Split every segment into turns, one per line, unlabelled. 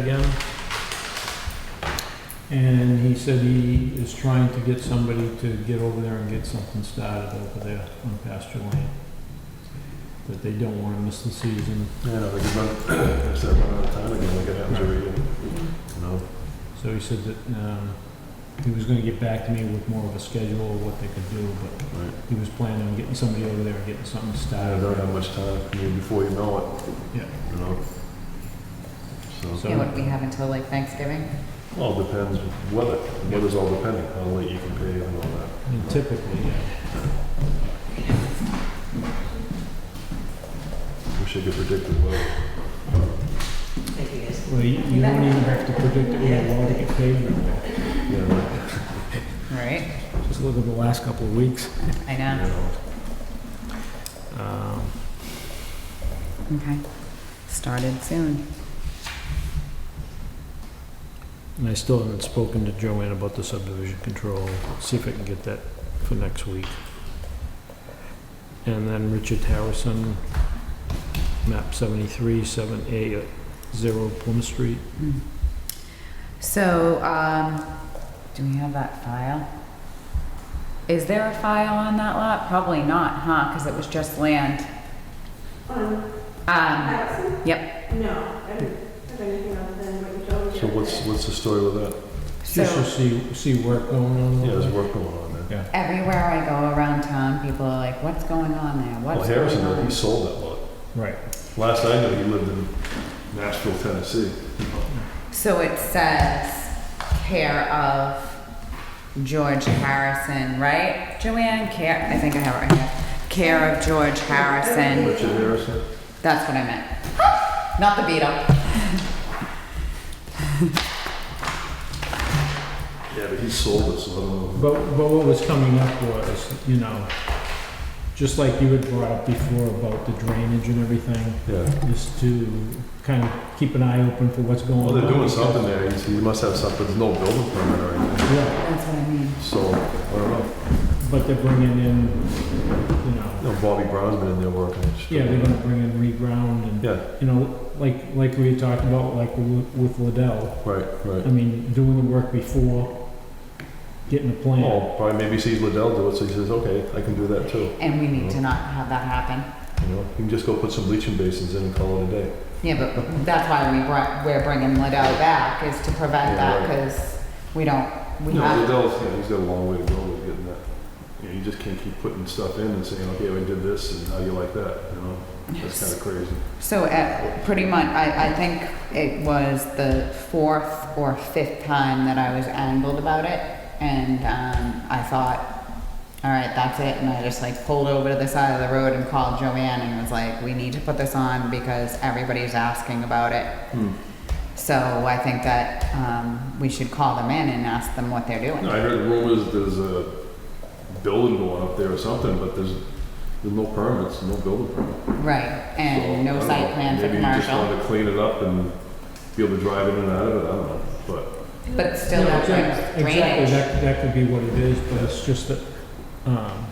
again. And he said he is trying to get somebody to get over there and get something started over there on pasture land. That they don't wanna miss the season,
Yeah, like about, I said about a time ago, like it happens every year, you know?
so he said that, um, he was gonna get back to me with more of a schedule of what they could do, but
Right.
he was planning on getting somebody over there and getting something
I
started.
don't have much time, I mean, before you know it.
Yeah.
You know? So,
So-
Yeah, what we have until like Thanksgiving?
all depends, weather, weather's all depending, how late you can pay and all that.
And typically, yeah,
Wish I could predict the weather.
well, you, you don't even have to predict it, you're allowed to get paid anymore.
Yeah, right,
Right,
Just look at the last couple of weeks.
I
you
know,
know,
Um,
okay. Started soon.
And I still haven't spoken to Joanne about the subdivision control, see if I can get that for next week. And then Richard Harrison, map 73, 7A, 0 Plymouth Street.
Hmm. So, um, do we have that file? Is there a file on that lot? Probably not, huh, because it was just land.
Um,
Um,
Allison?
yep,
No, I don't have anything other than what you told me.
So what's, what's the story with that?
So you
so
see, see work going on?
Yeah, there's work going on there.
Yeah.
everywhere I go around town, people are like, what's going on there?
Well,
What's going
Harrison, he
on?
sold that lot.
Right.
Last I knew, he lived in Nashville, Tennessee.
So it says care of George Harrison, right? Joanne, care, I think I have it right here. Care of George Harrison.
Richard Harrison?
That's what I meant. Not the Beatle.
Yeah, but he sold it, so I don't know.
But, but what was coming up was, you know, just like you had brought up before about the drainage and everything,
Yeah.
is to kind of keep an eye open for what's going on.
Well, they're doing something there, He's- he must have something, there's no building permit or anything,
Yeah,
That's what I mean.
so, I don't know.
but they're bringing in, you know,
No, Bobby Brown's been in there working. It's-
Yeah, they're gonna bring in reground and,
Yeah,
you know, like, like we had talked about, like with with Liddell.
right,
I
right.
mean, doing the work before, getting a plan.
Oh, probably maybe sees Liddell do it, so he says, okay, I can do that too,
And we need to not have that happen.
you know? You can just go put some bleaching basins in and call it a day.
Yeah, but that's why we brought, we're bringing Liddell back is to prevent
Yeah,
that
right.
because we don't, we
No,
have.
Liddell's, yeah, he's got a long way to go with getting that. You know, you just can't keep putting stuff in and saying, okay, we did this, and how you like that, you know? That's kinda crazy.
So at, pretty much, I, I think it was the fourth or fifth time that I was angled about it. And, um, I thought, all right, that's it. And I just like pulled over to the side of the road and called Joanne and was like, we need to put this on because everybody's asking about it. So I think that um, we should call them in and ask them what they're doing.
No, I heard rumors there's a building going up there or something, but there's, there's no permits, no building permit.
Right, and
So, I
no
don't
site
know.
plan for
Maybe you just
commercial,
wanted to clean it up and be able to drive in and out of it, I don't know, but,
but still
Yeah,
no
exact- Exactly,
drainage.
that, that could be what it is, but it's just that, um,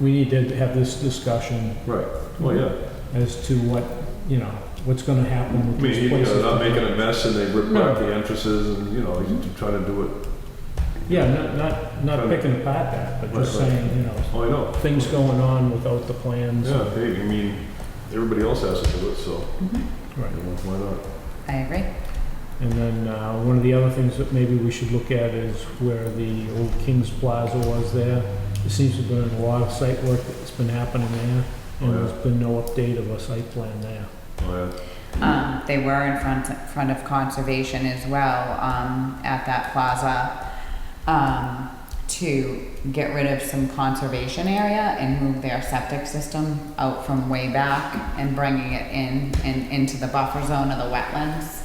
we need to have this discussion
right, well, yeah.
as to what, you know, what's gonna happen
I
with
mean,
these
you know,
places.
they're not making a mess and they rip
No.
out the entrances and, you know, you're trying to do it,
Yeah, not, not, not
Right.
picking apart that, but
Right,
just
right.
saying, you know,
oh, I know.
things going on without the plans.
Yeah, hey, I mean, everybody else has to do it, so,
Mhm,
Right.
you know, why not?
I agree.
And then uh, one of the other things that maybe we should look at is where the old King's Plaza was there. There seems to have been a lot of site work that's been happening there, and there's been no update of a site plan there.
Oh,
Um, They were in front, front of conservation as well, um, at that plaza, um, to get rid of some conservation area and move their septic system out from way back and bringing it in and into the buffer zone of the wetlands.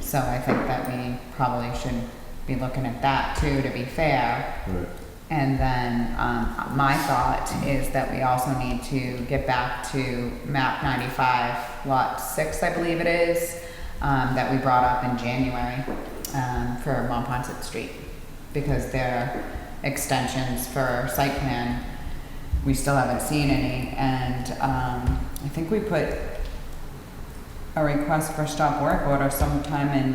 So I think that we probably should be looking at that too, to be fair.
yeah, right.
And then, um, my thought is that we also need to get back to map ninety-five, lot six, I believe it is, um, that we brought up in January, um, for Monpont Street. Because their extensions for site plan, we still haven't seen any, and, um, I think we put a request for stop work order sometime in